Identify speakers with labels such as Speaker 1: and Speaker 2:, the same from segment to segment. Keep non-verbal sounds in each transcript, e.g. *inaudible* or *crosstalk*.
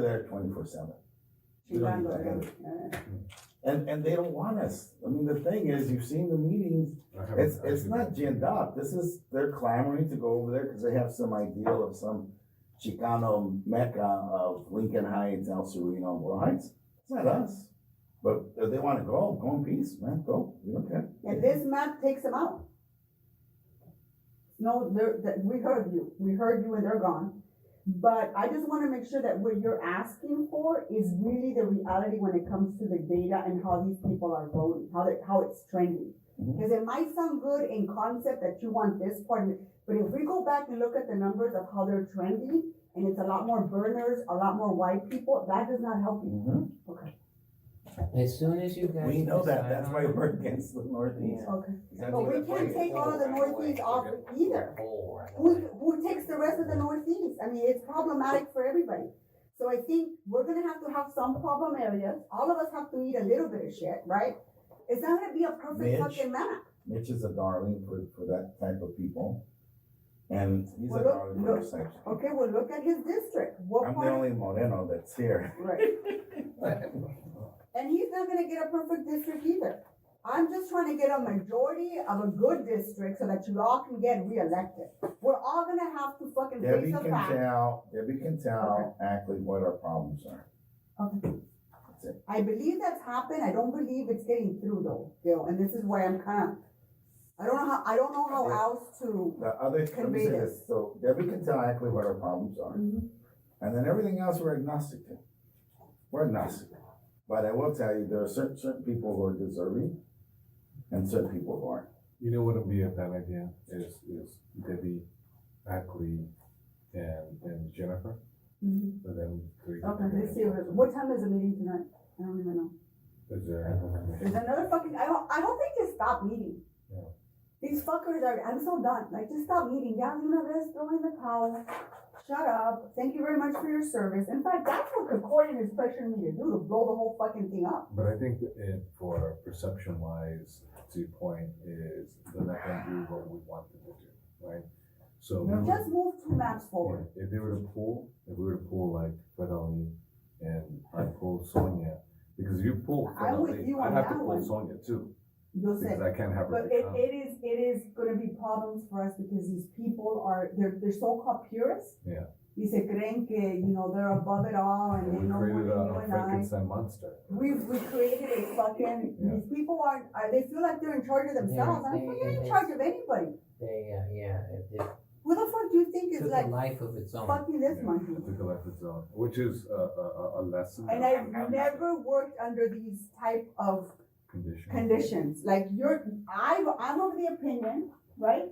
Speaker 1: there twenty-four seven.
Speaker 2: She's on the road.
Speaker 1: And, and they don't want us. I mean, the thing is, you've seen the meetings,
Speaker 3: I haven't-
Speaker 1: it's, it's not ginned up. This is, they're clamoring to go over there because they have some ideal of some Chicano mecca of Lincoln Heights, El Sereno, Boyle Heights. It's not us. But if they want to go, go in peace, man, go, we don't care.
Speaker 2: And this map takes them out. No, they're, that, we heard you, we heard you and they're gone. But I just wanna make sure that what you're asking for is really the reality when it comes to the data and how these people are voting, how they, how it's trending.
Speaker 1: Mhm.
Speaker 2: Cause it might sound good in concept that you want this part, but if we go back and look at the numbers of how they're trending, and it's a lot more burners, a lot more white people, that does not help you.
Speaker 1: Mhm.
Speaker 4: As soon as you guys.
Speaker 1: We know that,
Speaker 4: decide
Speaker 1: that's
Speaker 4: on
Speaker 1: why
Speaker 4: it-
Speaker 1: we're against the Northeast.
Speaker 2: Okay.
Speaker 4: That's
Speaker 2: But we
Speaker 4: the
Speaker 2: can't
Speaker 4: way
Speaker 2: take all of the
Speaker 4: forward,
Speaker 2: Northeast
Speaker 4: right
Speaker 2: off
Speaker 4: away.
Speaker 2: either.
Speaker 4: Forward.
Speaker 2: Who, who takes the rest of the northeast? I mean, it's problematic for everybody. So I think we're gonna have to have some problem areas. All of us have to eat a little bit of shit, right? It's not gonna be a perfect
Speaker 1: Mitch?
Speaker 2: fucking map.
Speaker 1: Mitch is a darling for, for that type of people. And he's a
Speaker 2: Well, look-
Speaker 1: darling for
Speaker 2: look,
Speaker 1: those types of people.
Speaker 2: Okay, well, look at his district. What
Speaker 1: I'm the
Speaker 2: part,
Speaker 1: only Moreno that's here.
Speaker 2: right? And he's not gonna get a perfect district either. I'm just trying to get a majority of a good district so that you all can get reelected. We're all gonna have to fucking
Speaker 1: Debbie
Speaker 2: face the
Speaker 1: can
Speaker 2: fact.
Speaker 1: tell, Debbie can tell actually what our problems are.
Speaker 2: Okay.
Speaker 1: That's it.
Speaker 2: I believe that's happened. I don't believe it's getting through though, Bill, and this is why I'm kind of, I don't know how, I don't know how
Speaker 1: Yeah.
Speaker 2: else to.
Speaker 1: The other, let me
Speaker 2: Convey
Speaker 1: say
Speaker 2: this. Mm-hmm.
Speaker 1: this, so Debbie can tell actually what our problems are. And then everything else we're agnostic to. We're agnostic. But I will tell you, there are certain, certain people who are deserving and certain people who aren't.
Speaker 3: You know what would be a bad idea is, is Debbie, Ackley, and, and Jennifer,
Speaker 2: Mhm.
Speaker 3: and then three.
Speaker 2: Okay, let's see, what time is the meeting tonight? I don't even know.
Speaker 3: Is there?
Speaker 2: There's another fucking, I don't, I don't think just stop meeting.
Speaker 3: Yeah.
Speaker 2: These fuckers are, I'm so done, like, just stop meeting, yeah, you know, let's throw in the towel. Shut up, thank you very much for your service. In fact, that's what Concordian is pressuring me to do, to blow the whole fucking thing up.
Speaker 3: But I think that it, for perception wise, to your point is they're not gonna do what we want them to do, right? So. we would-
Speaker 2: Just move two maps forward.
Speaker 3: Yeah, If they were to pull, if we were to pull like Fred Ali and I pull Sonia, because if you pull Fred
Speaker 2: I'm with
Speaker 3: Ali,
Speaker 2: you
Speaker 3: I
Speaker 2: on
Speaker 3: have to
Speaker 2: that
Speaker 3: pull
Speaker 2: one.
Speaker 3: Sonia too,
Speaker 2: You'll say.
Speaker 3: because I can't have her.
Speaker 2: But it, it is, it is gonna be problems for us because these people are, they're, they're so-called purists.
Speaker 3: Yeah.
Speaker 2: Y se creen que, you know, they're above it all and they
Speaker 3: We
Speaker 2: know more than
Speaker 3: created a
Speaker 2: you
Speaker 3: a
Speaker 2: and I.
Speaker 3: Frankenstein monster.
Speaker 2: We've, we created a fucking,
Speaker 3: Yeah.
Speaker 2: these people are, are, they feel like they're in charge of themselves. I'm like,
Speaker 4: they-
Speaker 2: you're in
Speaker 4: they-
Speaker 2: charge of anybody.
Speaker 4: *laughs* They, uh, yeah, it, it
Speaker 2: Who the fuck do you think is
Speaker 4: took a
Speaker 2: like
Speaker 4: life of its own.
Speaker 2: fucking this
Speaker 3: Yeah,
Speaker 2: monkey?
Speaker 3: It took a life of its own, which is a, a, a- a lesson.
Speaker 2: And I've never worked under these type of
Speaker 3: Condition.
Speaker 2: conditions, like you're, I, I'm of the opinion, right?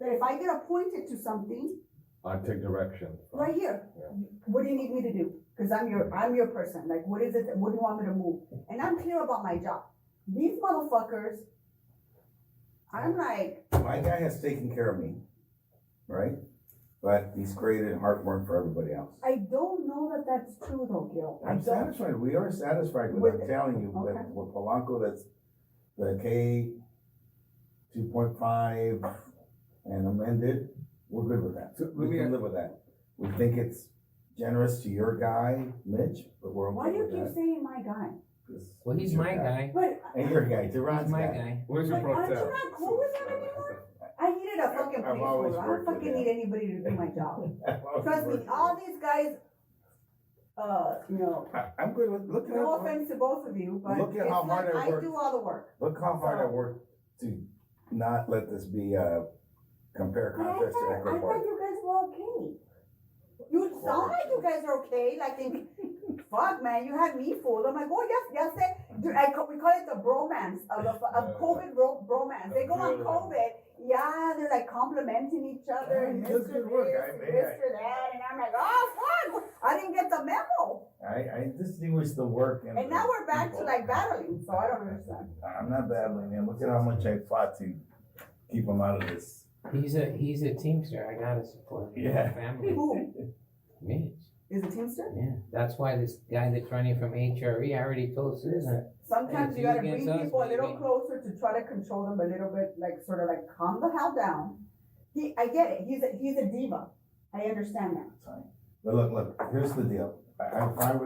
Speaker 2: That if I get appointed to something,
Speaker 3: I take direction. from-
Speaker 2: right here,
Speaker 3: Yeah.
Speaker 2: what do you need me to do? Cause I'm your, I'm your person, like what is it, that- what do you want me to move? And I'm clear about my job. These motherfuckers, I'm like,
Speaker 1: My guy has taken care of me, right? But he's created heartburn for everybody else.
Speaker 2: I don't know that that's true though, Gil. I
Speaker 1: I'm
Speaker 2: don't.
Speaker 1: satisfied, we are satisfied with,
Speaker 2: With-
Speaker 1: I'm telling you,
Speaker 2: okay.
Speaker 1: that with Polanco, that's the K two point five and amended, we're good with that.
Speaker 3: So let
Speaker 1: We
Speaker 3: me
Speaker 1: can
Speaker 3: ask-
Speaker 1: live with that. We think it's generous to your guy, Mitch, but we're
Speaker 2: Why do
Speaker 1: okay
Speaker 2: you
Speaker 1: with
Speaker 2: keep
Speaker 1: that.
Speaker 2: saying my guy?
Speaker 1: 'cause
Speaker 4: Well, he's
Speaker 1: your
Speaker 4: my guy.
Speaker 2: But
Speaker 1: And your guy, Duran's
Speaker 4: He's my
Speaker 1: guy.
Speaker 4: guy.
Speaker 3: Where's your
Speaker 2: But aren't you
Speaker 3: protest?
Speaker 2: not cool with that anymore? I needed a fucking
Speaker 1: I've always
Speaker 2: placeholder. I don't
Speaker 1: worked with
Speaker 2: fucking
Speaker 1: him.
Speaker 2: need anybody to do
Speaker 1: *laughs*
Speaker 2: my job. Trust me, all these guys, uh, you know,
Speaker 1: I, *laughs* I'm good with, look at
Speaker 2: No
Speaker 1: how,
Speaker 2: offense to both of you, but
Speaker 1: Look
Speaker 2: it's
Speaker 1: at how
Speaker 2: like
Speaker 1: hard I
Speaker 2: I
Speaker 1: worked.
Speaker 2: do all the work.
Speaker 1: look how hard I worked to not let this be a compare
Speaker 2: But I thought,
Speaker 1: contrast to
Speaker 2: I thought
Speaker 1: Ecuador.
Speaker 2: you guys were okay. You sound like you guys are okay, like in, fuck man, you had me fooled. I'm like, oh yes, yes, eh. Dude, I ca- we call it the bromance of, of of COVID bro- bromance. They go on
Speaker 3: Yeah.
Speaker 2: COVID, yeah, they're like complimenting each other
Speaker 1: Yeah,
Speaker 2: and
Speaker 1: it
Speaker 2: this
Speaker 1: does
Speaker 2: or
Speaker 1: good work. I
Speaker 2: this, and
Speaker 1: mean,
Speaker 2: this or that, and I'm like, oh fuck, I didn't get the memo.
Speaker 1: I, I distinguish the work and.
Speaker 2: And now we're back to
Speaker 1: people.
Speaker 2: like battling, so I don't understand.
Speaker 1: I'm not battling, man. Look at how much I fought to keep him out of this.
Speaker 4: He's a, he's a teamster. I gotta support him.
Speaker 1: Yeah.
Speaker 4: Family.
Speaker 2: Who
Speaker 4: Mitch.
Speaker 2: is a teamster?
Speaker 4: Yeah. That's why this guy that's running from HRE, I already told Susan,
Speaker 2: Sometimes you
Speaker 4: Hey,
Speaker 2: gotta
Speaker 4: you
Speaker 2: bring
Speaker 4: get those,
Speaker 2: people a little
Speaker 4: baby.
Speaker 2: closer to try to control them a little bit, like sort of like calm the hell down. He, I get it. He's a, he's a diva. I understand that.
Speaker 1: But look, look, here's the deal. I, I'm fine with